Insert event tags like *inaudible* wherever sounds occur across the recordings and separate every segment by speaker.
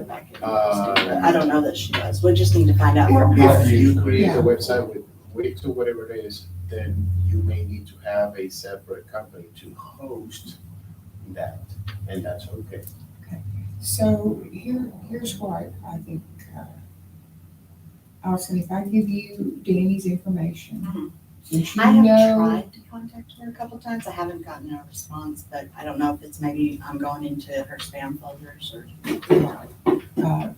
Speaker 1: back in.
Speaker 2: Uh,
Speaker 1: I don't know that she does. We just need to find out from her.
Speaker 2: If you create a website with Wix or whatever it is, then you may need to have a separate company to host that, and that's okay.
Speaker 3: So here, here's what I think, uh, Allison, if I give you Danny's information,
Speaker 1: Mhm.
Speaker 3: since
Speaker 1: I
Speaker 3: you
Speaker 1: have
Speaker 3: know,
Speaker 1: tried to contact her a couple times. I haven't gotten a response, but I don't know if it's maybe I'm going into her spam folders or.
Speaker 3: uh,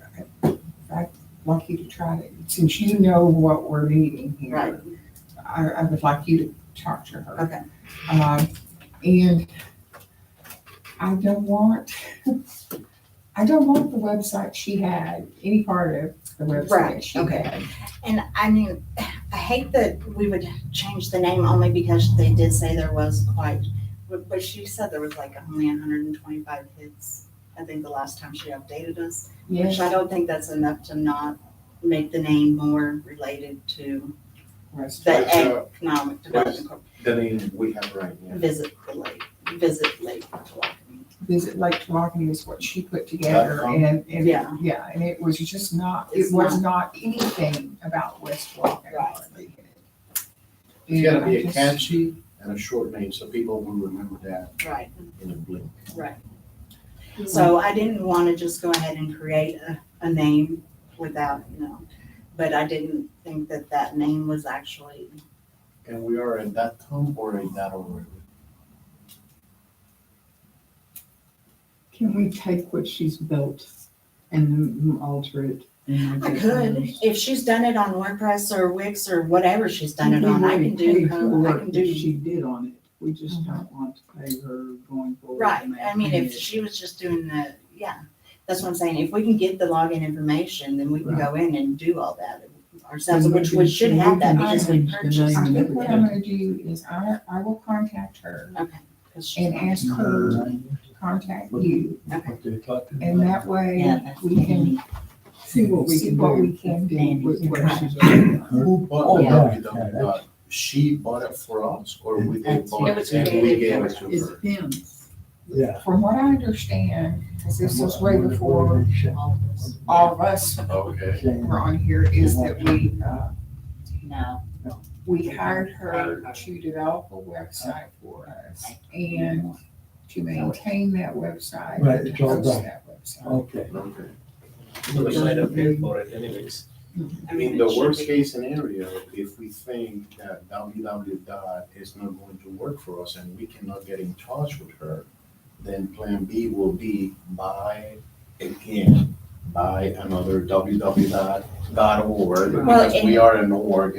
Speaker 3: I'd like you to try to, since you know what we're needing
Speaker 1: Right.
Speaker 3: here, I, I would like you to talk to her.
Speaker 1: Okay.
Speaker 3: Um, and I don't want, *laughs* I don't want the website she had, any part of the website
Speaker 1: Right,
Speaker 3: she
Speaker 1: okay.
Speaker 3: had.
Speaker 1: And I mean, I hate that we would change the name only because they did say there was quite, but, but she said there was like only hundred and twenty-five hits. I think the last time she updated us, which
Speaker 3: Yes,
Speaker 1: I don't think that's enough to not make the name more related to
Speaker 3: rest-
Speaker 1: the
Speaker 2: That's, uh,
Speaker 1: economic development corp,
Speaker 2: The name we have right now.
Speaker 1: visit the lake, visit Lake Flacony.
Speaker 3: visit Lake Tawakoni is what she put together
Speaker 2: Dot com.
Speaker 3: and, and,
Speaker 1: Yeah.
Speaker 3: yeah, and it was just not, it
Speaker 1: It's
Speaker 3: was not anything about West Tawakoni.
Speaker 1: Right.
Speaker 3: hardly.
Speaker 2: It's gotta
Speaker 3: And I
Speaker 2: be a
Speaker 3: just-
Speaker 2: catchy and a short name, so people will remember that
Speaker 1: Right,
Speaker 2: in a blink.
Speaker 1: right. So I didn't want to just go ahead and create a, a name without, you know, but I didn't think that that name was actually
Speaker 2: And we are a dot com or a dot org.
Speaker 4: Can we take what she's built and alter it? and
Speaker 1: I
Speaker 4: make it
Speaker 1: could,
Speaker 4: hers?
Speaker 1: if she's done it on WordPress or Wix or whatever she's done it on, I can
Speaker 4: We
Speaker 1: do,
Speaker 4: paid for
Speaker 1: her- I
Speaker 4: work
Speaker 1: can
Speaker 4: that
Speaker 1: do. Mm-hmm.
Speaker 4: She did on it, we just don't want to pay her going forward.
Speaker 1: Right,
Speaker 4: and
Speaker 1: I mean, if
Speaker 4: maintaining it.
Speaker 1: she was just doing the, yeah, that's what I'm saying, if we can get the login information, then we can go in and do all that ourselves,
Speaker 4: Then we
Speaker 1: which we
Speaker 4: can-
Speaker 1: should
Speaker 4: then we
Speaker 1: have that
Speaker 4: can
Speaker 1: because we
Speaker 4: change the
Speaker 1: purchased.
Speaker 4: name.
Speaker 3: I think what I'm gonna do is I, I will contact her
Speaker 1: Okay. 'cause she-
Speaker 3: and ask her to contact you. And that way
Speaker 1: Yeah, that's
Speaker 3: we can
Speaker 4: See what we
Speaker 3: see
Speaker 4: can
Speaker 3: what we
Speaker 4: do.
Speaker 3: can do
Speaker 1: Danny.
Speaker 3: with what she's.
Speaker 2: Who
Speaker 5: Oh,
Speaker 2: bought the
Speaker 5: yeah.
Speaker 2: www.? She bought it for us or we did
Speaker 4: That's-
Speaker 2: bought
Speaker 1: It was
Speaker 2: it and we
Speaker 1: created
Speaker 2: gave
Speaker 1: for
Speaker 2: it to
Speaker 4: It's
Speaker 2: her?
Speaker 4: him.
Speaker 5: Yeah.
Speaker 3: From what I understand, because this was way before
Speaker 1: All of us.
Speaker 3: all of us
Speaker 1: uh,
Speaker 2: Okay.
Speaker 3: were on here, is that we, uh,
Speaker 1: No,
Speaker 3: we hired her to develop a website for us and to maintain that website.
Speaker 5: Right,
Speaker 3: and
Speaker 5: it's
Speaker 3: to
Speaker 5: all
Speaker 3: host
Speaker 5: done.
Speaker 3: that website.
Speaker 5: Okay.
Speaker 2: Okay.
Speaker 6: So they might have paid for it anyways.
Speaker 1: I mean,
Speaker 2: In
Speaker 1: it
Speaker 2: the
Speaker 1: should
Speaker 2: worst
Speaker 1: be-
Speaker 2: case scenario, if we think that www dot is not going to work for us and we cannot get in touch with her, then plan B will be buy again, buy another www dot dot org,
Speaker 1: Well,
Speaker 2: because we are an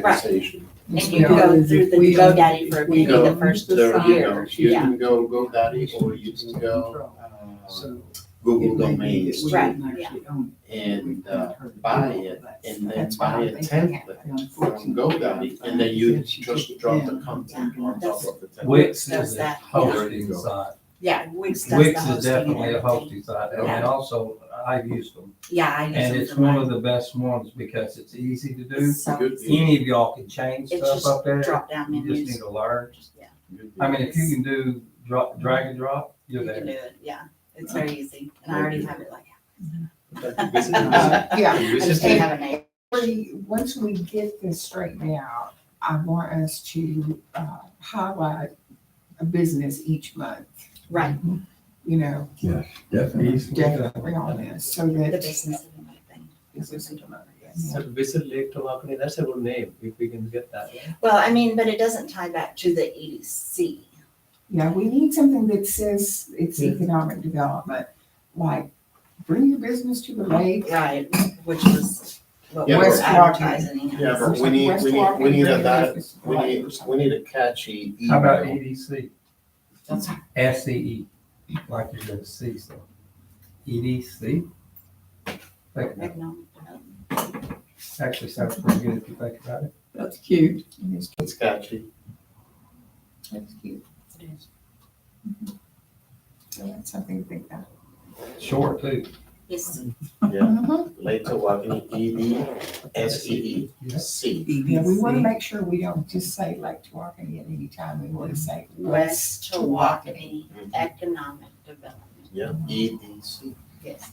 Speaker 2: organization.
Speaker 1: And
Speaker 3: Yes, we
Speaker 1: you
Speaker 3: are.
Speaker 1: go through the
Speaker 4: We are-
Speaker 1: GoDaddy for
Speaker 2: we
Speaker 1: maybe the
Speaker 2: go
Speaker 1: first
Speaker 2: There
Speaker 1: year.
Speaker 2: you go, you
Speaker 1: yeah.
Speaker 2: can go GoDaddy or you can go uh,
Speaker 4: So it
Speaker 2: Google
Speaker 4: may be that
Speaker 2: Domains
Speaker 4: we
Speaker 1: Right,
Speaker 4: didn't actually own it. We
Speaker 2: and uh,
Speaker 4: paid her to
Speaker 2: buy
Speaker 4: do all
Speaker 2: it
Speaker 4: that.
Speaker 2: and then
Speaker 3: That's what
Speaker 2: buy
Speaker 3: I'm
Speaker 2: a
Speaker 3: thinking.
Speaker 2: template.
Speaker 4: Unfortunately,
Speaker 2: from GoDadaddy, and then you just drop the content on top of the template.
Speaker 5: Wix
Speaker 1: Does
Speaker 5: is a
Speaker 1: that, yeah.
Speaker 5: hosting site.
Speaker 1: Yeah, Wix does the
Speaker 5: Wix is
Speaker 1: hosting and
Speaker 5: definitely a
Speaker 1: everything.
Speaker 5: hosting site, and
Speaker 1: Yeah.
Speaker 5: then also, I've used them.
Speaker 1: Yeah, I use
Speaker 5: And
Speaker 1: it
Speaker 5: it's
Speaker 1: for
Speaker 5: one
Speaker 1: mine.
Speaker 5: of the best ones because it's easy to do.
Speaker 1: So
Speaker 2: Good.
Speaker 5: Any of y'all can change
Speaker 1: It's
Speaker 5: stuff
Speaker 1: just
Speaker 5: up there.
Speaker 1: drop down
Speaker 5: You just need
Speaker 1: menus.
Speaker 5: to learn.
Speaker 1: Just, yeah,
Speaker 5: I mean, if you can do drop, drag and drop,
Speaker 1: you
Speaker 5: you're
Speaker 1: can do
Speaker 5: there.
Speaker 1: it. Yeah, it's very easy. And I already have it like,
Speaker 2: Visiting-
Speaker 3: Uh, Yeah,
Speaker 1: I just *laughs*
Speaker 2: visiting-
Speaker 1: didn't have a name.
Speaker 3: we- once we get this straightened out, I want us to, uh, highlight a business each month,
Speaker 1: Right,
Speaker 3: you know, definitely on this, so
Speaker 1: the
Speaker 3: that.
Speaker 1: business of my thing.
Speaker 3: Business each month, yes.
Speaker 6: So Visit Lake Tawakoni, that's a good name, if we can get that.
Speaker 1: Well, I mean, but it doesn't tie back to the E EDC.
Speaker 3: Yeah, we need something that says it's economic development, like bring your business to the lake.
Speaker 1: Right, which was what
Speaker 2: Yeah,
Speaker 1: we're
Speaker 3: but-
Speaker 1: advertising. as.
Speaker 2: Yeah, but we need, we need, we need a, di- we need, we need a catchy E,
Speaker 5: How about E
Speaker 2: email.
Speaker 5: EDC,
Speaker 1: That's-
Speaker 5: SCE, E like you're gonna see stuff? EDC? E Think about it.
Speaker 1: economic development.
Speaker 5: Actually sounds pretty good if you think about it.
Speaker 4: That's cute.
Speaker 2: It's catchy.
Speaker 3: That's cute. So that's something to think about.
Speaker 5: Short too.
Speaker 1: Yes,
Speaker 2: Later, Wagoning, E D S E E
Speaker 5: Yes.
Speaker 2: C.
Speaker 3: Yeah,
Speaker 4: E
Speaker 3: we want to make sure we don't just say Lake Tawakoni at any time. We
Speaker 2: Mm-hmm.
Speaker 3: want to say West
Speaker 1: West
Speaker 3: Tawakoni.
Speaker 1: Economic Development,
Speaker 2: Yeah, Mm-hmm. E D C.
Speaker 1: yes.